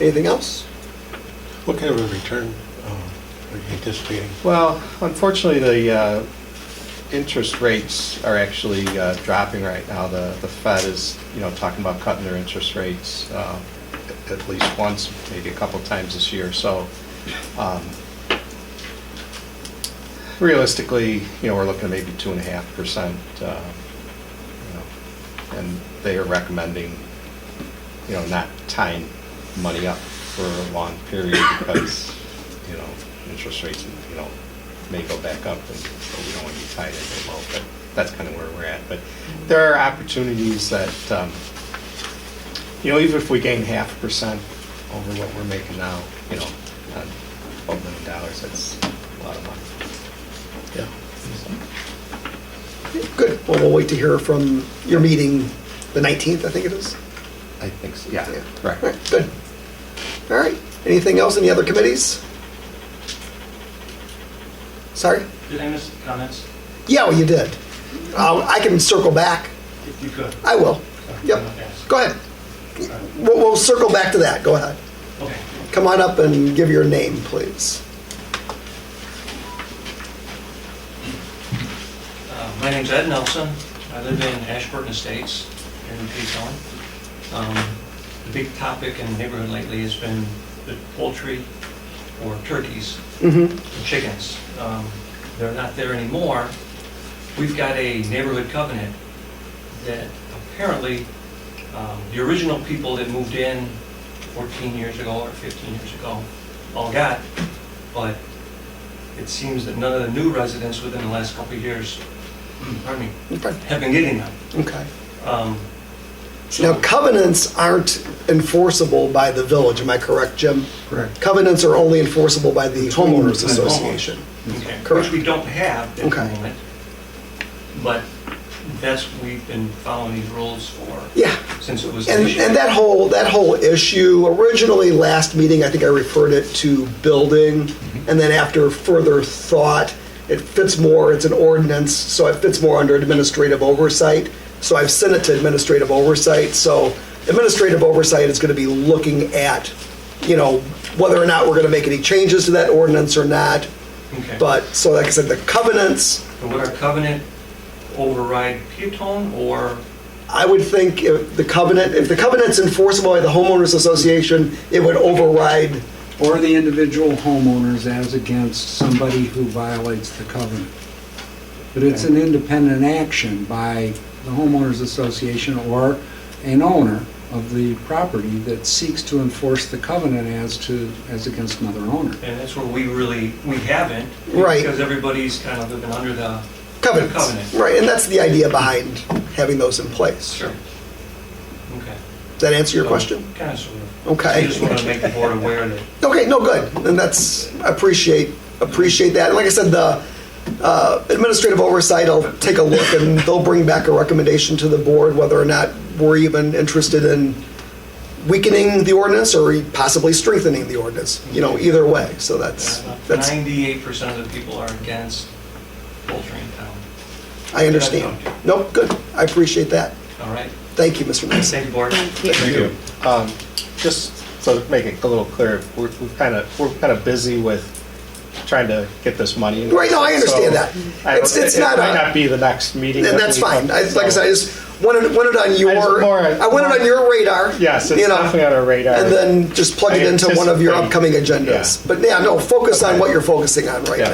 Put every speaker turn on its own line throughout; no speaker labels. Anything else?
What kind of a return um, are you anticipating?
Well, unfortunately, the uh, interest rates are actually uh, dropping right now. The the Fed is, you know, talking about cutting their interest rates uh, at- at least once, maybe a couple times this year. So um, realistically, you know, we're looking at maybe two and a half percent, you know, and they are recommending, you know, not tying money up for a long period because, you know, interest rates, you know, may go back up, and so we don't want to be tied in very low, but that's kind of where we're at. But there are opportunities that, um, you know, even if we gain half a percent over what we're making now, you know, on twelve million dollars, that's a lot of money.
Yeah.
Good. Well, we'll wait to hear from your meeting, the 19th, I think it is?
I think so, yeah,
Yeah.
correct.
All right, good. All right, anything else, any other committees? Sorry?
Did I miss comments?
Yeah, well, you did. Uh, I can circle back.
If you could.
I will. Yep.
Okay.
Go ahead. We'll, we'll circle back to that. Go ahead.
Okay.
Come on up and give your name, please.
Uh, My name's Ed Nelson. I live in Ashburton Estates here in Peace Island. Um, The big topic in the neighborhood lately has been the poultry or turkeys
Mm-hmm.
and chickens. Um, They're not there anymore. We've got a neighborhood covenant that apparently um, the original people that moved in 14 years ago or 15 years ago all got, but it seems that none of the new residents within the last couple of years, hmm, pardon me,
Okay.
have been getting them.
okay.
Um,
Now, covenants aren't enforceable by the village, am I correct, Jim?
Correct.
Covenants are only enforceable by the homeowners
Homeowners.
association.
Okay,
Correct.
which we don't have at the
Okay.
moment. But that's, we've been following these rules for,
Yeah,
since it was
and,
initiated.
and that whole, that whole issue, originally, last meeting, I think I referred it to building, and then after further thought, it fits more, it's an ordinance, so it fits more under administrative oversight. So I've sent it to administrative oversight, so administrative oversight is gonna be looking at, you know, whether or not we're gonna make any changes to that ordinance or not,
Okay.
But, so like I said, the covenants,
And Would our covenant override Peatone or,
I would think if the covenant, if the covenant's enforceable by the homeowners association, it would override,
Or the individual homeowners as against somebody who violates the covenant. But it's an independent action by the homeowners association or an owner of the property that seeks to enforce the covenant as to, as against another owner.
and that's where we really, we haven't.
Right.
Because everybody's kind of living under the.
covenants.
Covenant.
Right, and that's the idea behind having those in place.
Okay.
Does that answer your question?
Kind of sort of. I
Okay.
just want to make the board aware that uh,
Okay, no, good, and that's, I appreciate, appreciate that. And Like I said, the uh, administrative oversight, I'll take a look, and they'll bring back a recommendation to the board whether or not we're even interested in weakening the ordinance or possibly strengthening the ordinance, you know, either way, so that's, that's,
ninety-eight percent of the people are against poultry in town.
I understand. Nope, good, I appreciate that.
All right?
Thank you, Mr. Mason.
Thank you, board.
Thank you. Um, Just so to make it a little clearer, we're kind of, we're kind of busy with trying to get this money.
Right, no, I understand
So,
that.
I-
It's- it's
it-
not
It might
a-
not be the next meeting.
And
that
that's
we
fine,
come-
I, like I said, I just wanted, wanted on your,
more-
I wanted on your radar.
Yes, it's
you know.
definitely on our radar.
And then just plug it
I
into one of your
anticipate-
upcoming agendas.
Yeah.
But yeah, no, focus on
Okay.
what you're focusing on right
Yeah.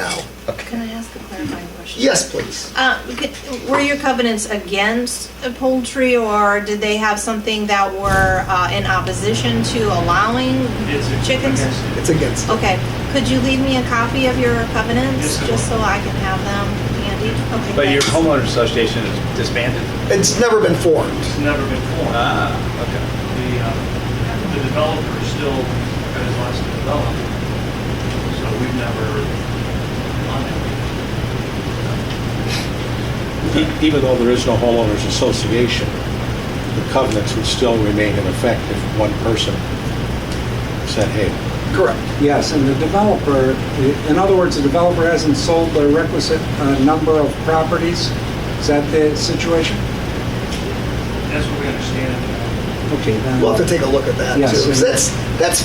now.
Can I ask a clarifying question?
Yes, please.
Uh, c- Were your covenants against poultry, or did they have something that were uh, in opposition to allowing
It's-
chickens?
against-
It's against.
Okay, could you leave me a copy of your covenants,
Yes, I will.
just so I can have them handy? Okay,
But your
thanks.
homeowner association is disbanded?
It's never been formed.
It's never been formed.
Ah, okay.
The, uh, the developer still got his license to develop, so we've never done it.
E- Even though there is no homeowners association, the covenants would still remain in effect if one person said, hey,
Correct.
Yes, and the developer, in other words, the developer hasn't sold the requisite uh, number of properties. Is that the situation?
That's what we understand.
Okay, then.
We'll have to take a look at that too.
Yes.
'Cause That's, that's